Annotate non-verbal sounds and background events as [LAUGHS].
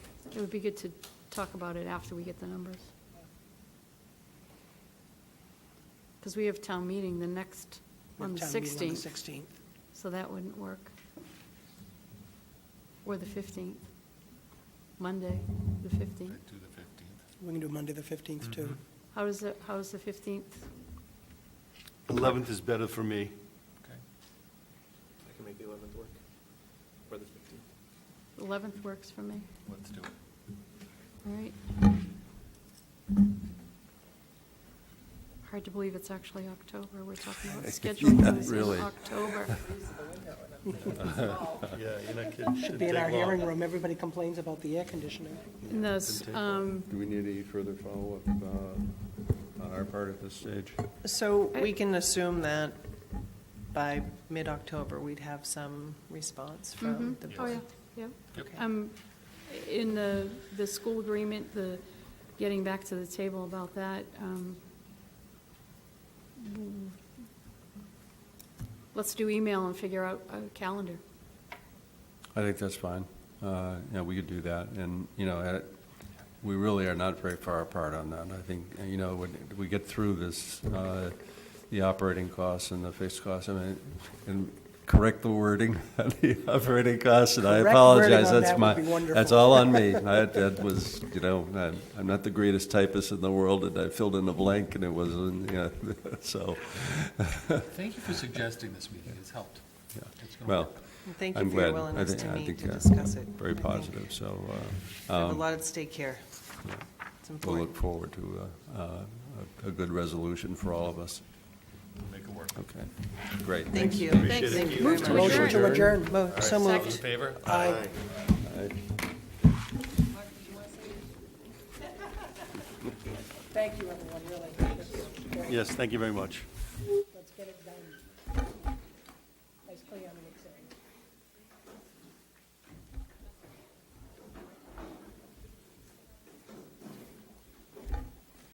It would be good to talk about it after we get the numbers. Because we have town meeting the next, We on have the town meeting On 16th, the 16th. so that wouldn't work. Or the 15th, Monday, the Do 15th. the fifteenth. We can do Monday, the 15th, too. How does, the- how does the 15th? 11th is better for me. Okay. I can make the 11th work, or the 15th. 11th works for me. Let's do it. All right. Hard to believe it's actually October. We're talking about scheduling things in Really. October. Yeah, you're not kidding. Should be in our hearing room. Everybody complains about the air conditioning. And those, um, Do we need any further follow-up uh, on our part at this stage? So I- we can assume that by mid-October, we'd have some response from the mhm. oh, yeah, board? yeah. Okay. Um, in the, the school agreement, the, getting back to the table about that, um, mm, let's do email and figure out a calendar. I think that's fine. Uh, You know, we could do that, and, you know, at- we really are not very far apart on that. I think, uh, you know, when we get through this, uh, the operating costs and the fixed costs, I mean, and correct the wording, [LAUGHS] of the operating costs, and I Correct wording apologize, on that's that my, would be wonderful. that's all on me. I- That was, you know, I'm- I'm not the greatest typist in the world, and I filled in a blank, and it wasn't, you know, [LAUGHS] so, Thank you for suggesting this meeting, it's helped. yeah. It's gonna well, work. And Thank I'm you for your glad. I willingness think- to I meet think, to uh, discuss it. I very think positive, so. uh, We have a um, lot at stake here. It's We'll important. look forward to uh, uh, a a good resolution for all of us. Make it work. Okay, great. Thank you. it. Thank you Move to very Motion much. to adjourn. Mo- So Second. moved. Favor? Aye. Thank you. Thank you, everyone, really. Yes, thank you very much. Let's get it done.